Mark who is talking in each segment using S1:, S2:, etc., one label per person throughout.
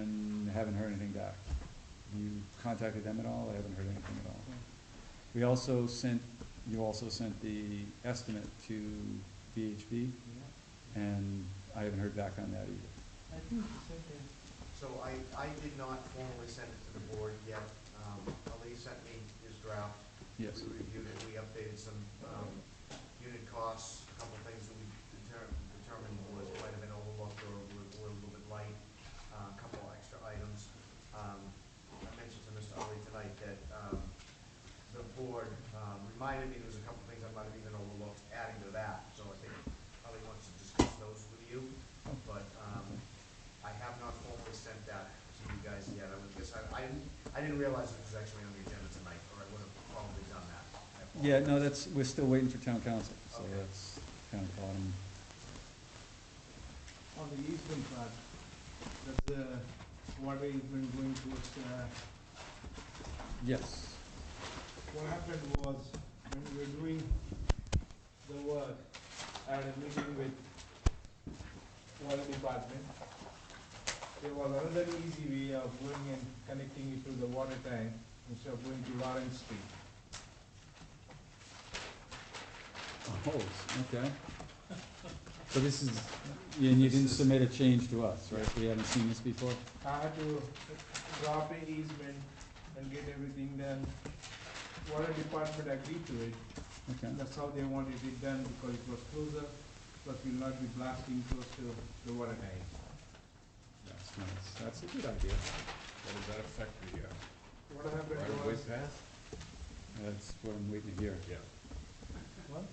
S1: and haven't heard anything back. You contacted them at all? I haven't heard anything at all. We also sent, you also sent the estimate to VHB, and I haven't heard back on that either.
S2: I think you said that.
S3: So I, I did not formally send it to the board yet. Um, Ali sent me his draft.
S1: Yes,
S3: We reviewed it, we updated some, um, unit costs, a couple of things that we determined, determined was might have been overlooked or were, were a little bit light, uh, a couple of extra items. Um, I mentioned to Mr. Ali tonight that, um, the board, um, reminded me there was a couple of things I might have even overlooked adding to that, so I think Ali wants to discuss those with you. But, um, I have not formally sent that to you guys yet, I would guess, I, I didn't, I didn't realize it was actually on the agenda tonight, or I would have probably done that. I
S1: yeah, no,
S3: apologize.
S1: that's, we're still waiting for town council, so
S3: Okay.
S1: that's kind of bottom.
S2: On the easement part, that's the water easement going uh, towards the
S1: Yes,
S2: What happened was, when we were doing the work, I had a meeting with water department. There was another easy way of going and connecting it to the water tank instead of going to Lawrence Street.
S1: oh, okay. So this is, and you didn't submit a change to us, right? We haven't seen this before?
S2: I had to drop an easement and get everything done. Water department agreed to it,
S1: Okay,
S2: and that's how they wanted it done because it was closer, plus we'll not be blasting close to the water tank.
S1: that's nice, that's a good idea.
S4: What does that affect the, uh,
S2: What happened
S4: right of way
S2: was,
S4: path?
S1: That's what I'm waiting to hear.
S4: Yeah.
S2: what?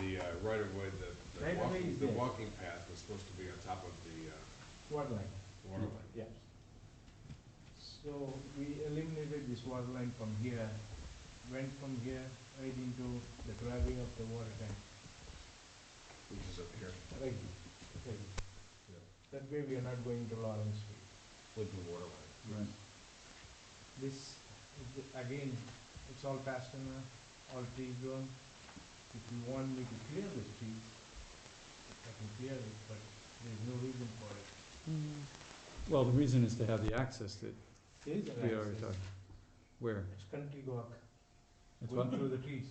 S4: The, uh, right of way, the,
S2: Right
S4: the
S2: of way is
S4: walking, the
S2: there.
S4: walking path was supposed to be on top of the, uh,
S2: Water line.
S4: water line.
S2: Yes. So we eliminated this water line from here, went from here right into the driving of the water tank.
S4: Which is up here.
S2: Right, right.
S4: Yeah.
S2: That way we are not going to Lawrence Street.
S4: With the water line.
S1: Right.
S2: This, is the- again, it's all pasture, all tree grown. If you want me to clear this tree, I can clear it, but there's no reason for it.
S1: Mm. Well, the reason is to have the access that
S2: There is an
S1: we already
S2: access.
S1: talked. Where?
S2: It's country walk,
S1: It's
S2: going
S1: what?
S2: through the trees.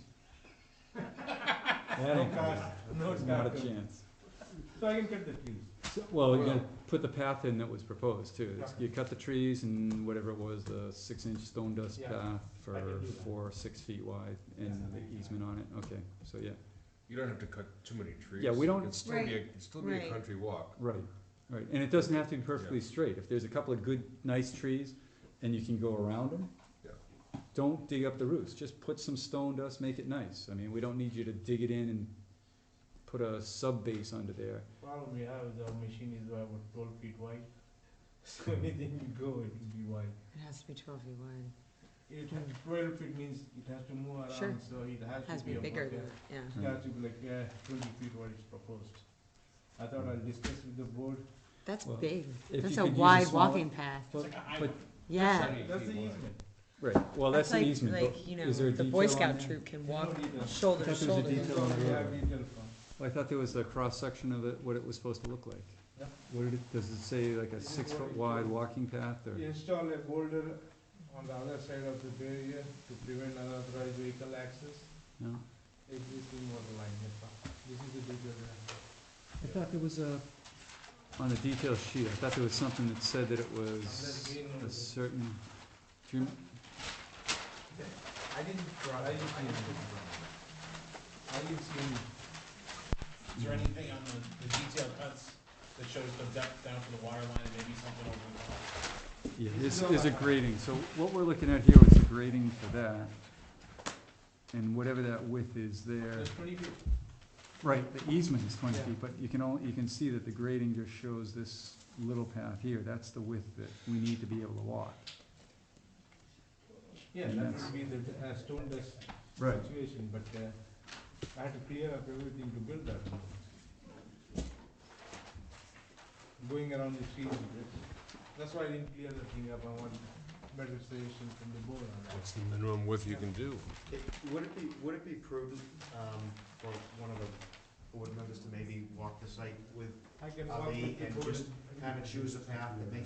S1: That ain't gonna happen.
S2: No
S1: There's Not a
S2: cars.
S1: chance.
S2: So I can cut the trees.
S1: So- Well, you
S4: Well-
S1: gotta put the path in that was proposed too. It's- You cut the trees and whatever it was, the six inch stone dust
S2: Yeah,
S1: path
S2: I can
S1: for
S2: do that.
S1: four, six feet wide and
S2: Yeah.
S1: the easement on it, okay, so yeah.
S4: You don't have to cut too many trees.
S1: Yeah, we don't-
S4: It'd still be, a-
S5: Right,
S4: it'd still be a
S5: right.
S4: country walk.
S1: Right, right, and it doesn't have to be perfectly straight, if there's a couple of good, nice trees, and you can go around them.
S4: Yeah.
S1: Don't dig up the roots, just put some stone dust, make it nice, I mean, we don't need you to dig it in and put a sub base under there.
S2: Problem we have is our machine is about twelve feet wide, so anything we go, it will be wide.
S5: It has to be twelve feet wide.
S2: It has, twelve feet means it has to move
S5: Sure.
S2: around, so it has to be.
S5: Has to be
S2: about,
S5: bigger
S2: uh,
S5: than, yeah.
S2: It
S1: Mm-hmm.
S2: has to be like, uh, twenty feet what is proposed. I thought I'll discuss with the board.
S5: That's
S1: Well, if
S5: big. That's
S1: you
S5: a
S1: could use a
S5: wide
S1: smaller-
S5: walking path.
S1: But, but,
S5: Yeah.
S4: Sunny
S2: That's the
S4: feet wide.
S2: easement.
S1: right, well, that's an
S5: like-
S1: easement,
S5: Like, you
S1: but
S5: know,
S1: is there a
S5: the
S1: detail
S5: Boy
S1: on
S5: Scout
S1: there?
S5: troop can
S2: There's
S5: walk
S2: no detail.
S5: shoulder
S1: I thought there
S5: to
S1: was a
S5: shoulder.
S1: detail
S2: That's
S1: on
S2: all
S1: the
S2: we
S1: road.
S2: have detail from.
S1: Well, I thought there was a cross-section of it, what it was supposed to look like.
S2: Yeah.
S1: What did it, does it say like a
S2: This is what
S1: six-foot
S2: it
S1: wide
S2: was.
S1: walking path, or?
S2: You Install a boulder on the other side of the barrier to prevent unauthorized vehicle access.
S1: No?
S2: Existing water line, that's all. This is the detail. we have.
S1: I thought there was a, on the detail sheet, I thought there was something that said that it
S2: Unless
S1: was
S2: we know
S1: a
S2: the-
S1: certain, do you,
S3: I didn't draw, I didn't. I didn't draw that.
S2: I didn't see any.
S6: Is there anything on the, the detail cuts that shows the depth down to the water line and maybe something over the top?
S1: yeah,
S2: This
S1: this
S2: is
S1: is
S2: all
S1: a
S2: I have.
S1: grading, so what we're looking at here is the grading for that. And whatever that width is there,
S2: There's twenty feet.
S1: right, the easement is twenty
S2: Yeah.
S1: feet, but you can all, you can see that the grading just shows this little path here, that's the width that we need to be able to walk.
S2: Yeah,
S1: And
S2: that
S1: that's-
S2: would be the, uh, stone dust
S1: Right.
S2: situation, but, uh, I had to clear up everything to build that. one. Going around the trees, that's, that's why I didn't clear the thing up, I want better suggestion from the board on that.
S4: What's the minimum width you can do?
S3: It- Would it be, would it be prudent, um, for one of the board members to maybe walk the site with,
S2: I can
S3: Are
S2: walk
S3: they-
S2: with the
S3: and
S2: board
S3: just
S2: and-
S3: kinda choose a path that makes